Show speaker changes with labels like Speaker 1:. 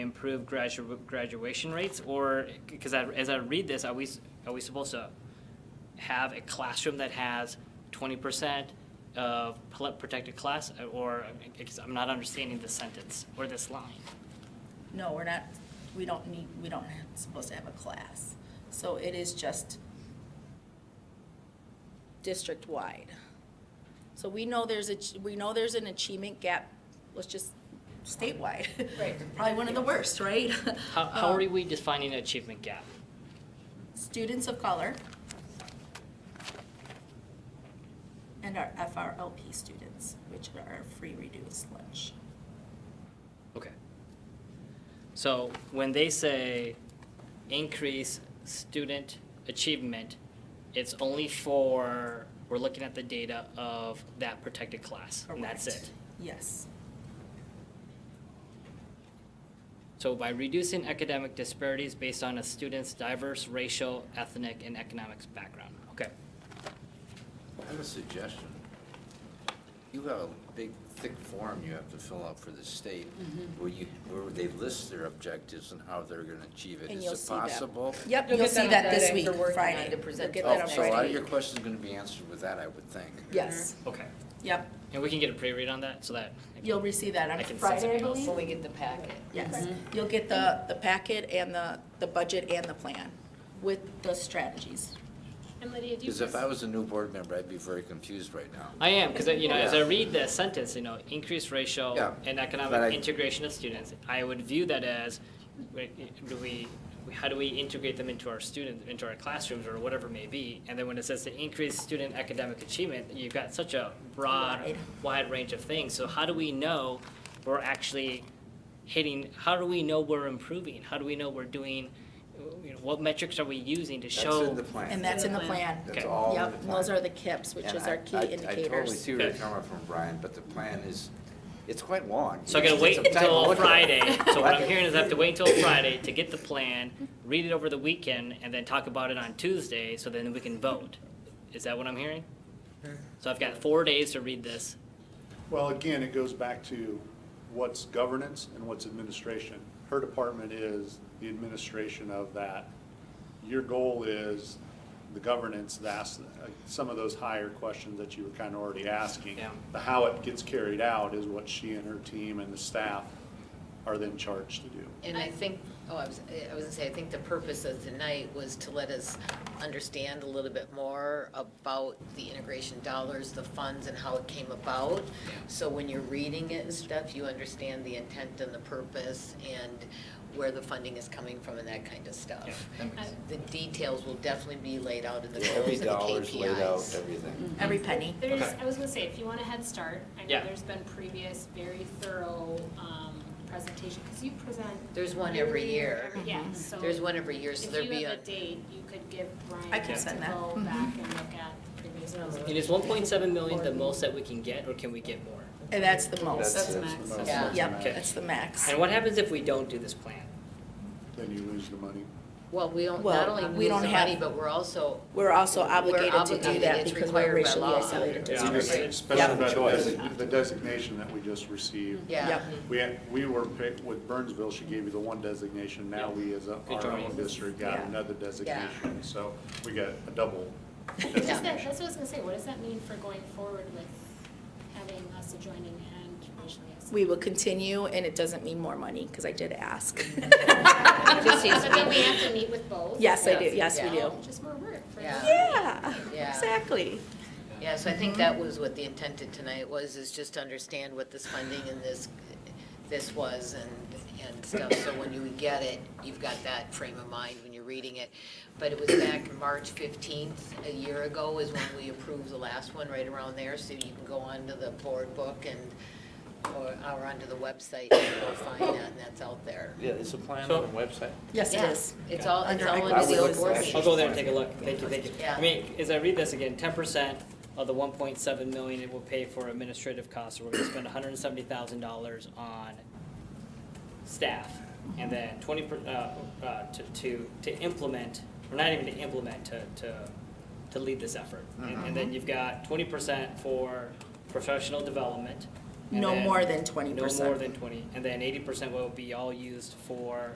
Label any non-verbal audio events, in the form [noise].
Speaker 1: improve gradu- graduation rates, or because I, as I read this, are we s- are we supposed to have a classroom that has twenty percent of pl- protected class, or because I'm not understanding this sentence or this line?
Speaker 2: No, we're not, we don't need, we don't have, supposed to have a class. So it is just district-wide. So we know there's a, ch- we know there's an achievement gap, let's just statewide. Right. [laughs] Probably one of the worst, right?
Speaker 1: How, how are
Speaker 2: Um,
Speaker 1: we defining achievement gap?
Speaker 2: Students of color and our FRLP students, which are our free reduced lunch.
Speaker 1: Okay. So when they say increase student achievement, it's only for, we're looking at the data of that protected class, and that's
Speaker 2: Correct.
Speaker 1: it.
Speaker 2: Yes.
Speaker 1: So by reducing academic disparities based on a student's diverse racial, ethnic, and economics background. Okay,
Speaker 3: I have a suggestion. You have a big, thick form you have to fill out for the state,
Speaker 2: Mm-hmm.
Speaker 3: where you, where they list their objectives and how they're gonna achieve it.
Speaker 2: And you'll
Speaker 3: Is it
Speaker 2: see that.
Speaker 3: possible?
Speaker 2: Yep,
Speaker 4: You'll
Speaker 2: you'll
Speaker 4: get
Speaker 2: see
Speaker 4: that on
Speaker 2: that this
Speaker 4: Friday
Speaker 2: week,
Speaker 4: for working on
Speaker 2: Friday.
Speaker 4: to present
Speaker 2: You'll get
Speaker 3: Oh,
Speaker 4: to
Speaker 2: that on
Speaker 4: us
Speaker 3: so a lot of
Speaker 2: Friday.
Speaker 3: your questions are gonna be answered with that, I would think.
Speaker 2: Yes,
Speaker 1: okay.
Speaker 2: yep.
Speaker 1: And we can get a pre-read on that, so that. I can-
Speaker 2: You'll receive that
Speaker 1: I
Speaker 2: on
Speaker 1: can send
Speaker 2: Friday, I
Speaker 1: something else.
Speaker 2: believe.
Speaker 4: When we get the packet.
Speaker 2: Yes, Mm-hmm. you'll get the, the packet and the, the budget and the plan with the strategies.
Speaker 5: And Lydia, do you?
Speaker 3: Because if I
Speaker 5: pers-
Speaker 3: was a new board member, I'd be very confused right now.
Speaker 1: I am, because, you know, as I
Speaker 3: Yeah.
Speaker 1: read the sentence, you know, increase racial
Speaker 3: Yeah,
Speaker 1: and
Speaker 3: but I-
Speaker 1: economic integration of students, I would view that as, wait, do we, how do we integrate them into our student, into our classrooms or whatever it may be? And then when it says to increase student academic achievement, you've got such a broad,
Speaker 2: Wide.
Speaker 1: wide range of things. So how do we know we're actually hitting, how do we know we're improving? How do we know we're doing, you know, what metrics are we using to
Speaker 3: That's in
Speaker 1: show?
Speaker 3: the plan.
Speaker 2: And that's in the plan.
Speaker 3: That's
Speaker 1: Okay.
Speaker 3: all in the
Speaker 2: Yep,
Speaker 3: plan.
Speaker 2: and those are the KIPs, which
Speaker 3: And
Speaker 2: is
Speaker 3: I-
Speaker 2: our key
Speaker 3: I- I totally
Speaker 2: indicators.
Speaker 3: see where you're
Speaker 1: Okay.
Speaker 3: coming from, Brian, but the plan is, it's quite long.
Speaker 1: So I
Speaker 3: You
Speaker 1: gotta
Speaker 3: should
Speaker 1: wait
Speaker 3: take some time to
Speaker 1: until
Speaker 3: look at
Speaker 1: Friday.
Speaker 3: it.
Speaker 1: So what I'm hearing is I have to wait until Friday to get the plan, read it over the weekend, and then talk about it on Tuesday, so then we can vote. Is that what I'm hearing? So I've got four days to read this.
Speaker 6: Well, again, it goes back to what's governance and what's administration. Her department is the administration of that. Your goal is the governance, that's uh, some of those higher questions that you were kind of already asking.
Speaker 1: Yeah.
Speaker 6: The how it gets carried out is what she and her team and the staff are then charged to do.
Speaker 4: And I think, oh, I was, I was gonna say, I think the purpose of tonight was to let us understand a little bit more about the integration dollars, the funds, and how it came about. So when you're reading it and stuff, you understand the intent and the purpose and where the funding is coming from and that kind of
Speaker 1: Yeah,
Speaker 4: stuff.
Speaker 1: that makes-
Speaker 4: The details will definitely be laid out in the goals
Speaker 3: Every
Speaker 4: and the
Speaker 3: dollar's laid out,
Speaker 4: KPIs.
Speaker 3: everything.
Speaker 2: Every penny.
Speaker 5: There's,
Speaker 1: Okay.
Speaker 5: I was gonna say, if you want a head start, I know
Speaker 1: Yeah.
Speaker 5: there's been previous very thorough, um, presentation, cause you present.
Speaker 4: There's one every
Speaker 5: yearly
Speaker 4: year.
Speaker 5: or every-
Speaker 2: Mm-hmm.
Speaker 5: Yeah, so.
Speaker 4: There's one every year, so there'll
Speaker 5: If
Speaker 4: be
Speaker 5: you
Speaker 4: a.
Speaker 5: have a date, you could give Brian.
Speaker 2: I can
Speaker 5: to
Speaker 2: send that.
Speaker 5: Go
Speaker 2: Mhm.
Speaker 5: back and look at previous
Speaker 1: And
Speaker 5: presentations.
Speaker 1: is one point seven million the most that we can get, or can we get more?
Speaker 2: And that's the most.
Speaker 3: That's-
Speaker 5: max.
Speaker 3: that's-
Speaker 4: Yeah.
Speaker 2: Yep,
Speaker 1: Okay.
Speaker 2: that's the max.
Speaker 1: And what happens if we don't do this plan?
Speaker 6: Then you lose the money.
Speaker 4: Well, we don't,
Speaker 2: Well,
Speaker 4: not only
Speaker 2: we
Speaker 4: lose the
Speaker 2: don't have-
Speaker 4: money, but we're also.
Speaker 2: We're also obligated to do
Speaker 4: obligated,
Speaker 2: that
Speaker 4: it's
Speaker 2: because we're
Speaker 4: required by
Speaker 2: racially
Speaker 4: law.
Speaker 2: isolated
Speaker 1: Yeah.
Speaker 2: districts.
Speaker 6: Especially by the
Speaker 3: Choice.
Speaker 6: desi- the designation that we just received.
Speaker 4: Yeah. [laughs]
Speaker 2: Yep.
Speaker 6: We, had- we were, picked with Burnsville, she gave you the one designation, now we as a,
Speaker 1: Good
Speaker 6: our
Speaker 1: job.
Speaker 6: own district got
Speaker 2: Yeah.
Speaker 6: another designation, so we got a double
Speaker 2: [laughs]
Speaker 5: What does that,
Speaker 6: designation.
Speaker 5: that's what I was gonna say, what does that mean for going forward with having us adjoining and racially isolated?
Speaker 2: We will continue, and it doesn't mean more money, because I did [laughs] ask.
Speaker 4: Just seems-
Speaker 5: But then we have to meet with both.
Speaker 2: Yes, I do,
Speaker 4: Yes,
Speaker 2: yes, we
Speaker 4: yeah.
Speaker 2: do.
Speaker 5: Oh, Just more work for
Speaker 4: Yeah.
Speaker 5: us.
Speaker 2: Yeah,
Speaker 4: Yeah.
Speaker 2: exactly.
Speaker 4: Yeah, so I think that was what the intent of tonight was, is just to understand what this funding and this, this was and, and stuff. So when you get it, you've got that frame of mind when you're reading it. But it was back March fifteenth, a year ago, is when we approved the last one, right around there. So you can go onto the board book and, or, or onto the website and go find that, and that's out there.
Speaker 3: Yeah, it's a plan
Speaker 1: So-
Speaker 3: the website.
Speaker 2: Yes, it
Speaker 4: Yeah,
Speaker 2: is.
Speaker 4: It's all, it's
Speaker 2: Under
Speaker 4: all
Speaker 2: equity
Speaker 4: under the old
Speaker 2: services.
Speaker 4: board
Speaker 1: I'll
Speaker 4: meeting.
Speaker 1: go there and take a look. Thank you, thank you.
Speaker 4: Yeah.
Speaker 1: I mean, as I read this again, ten percent of the one point seven million it will pay for administrative costs. So We're gonna spend hundred and seventy thousand dollars on staff. And then twenty, per- uh, uh, to, to, to implement, or not even to implement, to, to, to
Speaker 2: Mm-hmm.
Speaker 1: lead this effort. And- And then you've got twenty percent for professional development, and
Speaker 2: No
Speaker 1: then-
Speaker 2: more than 20%.
Speaker 1: No more than twenty, and then eighty percent will be all used for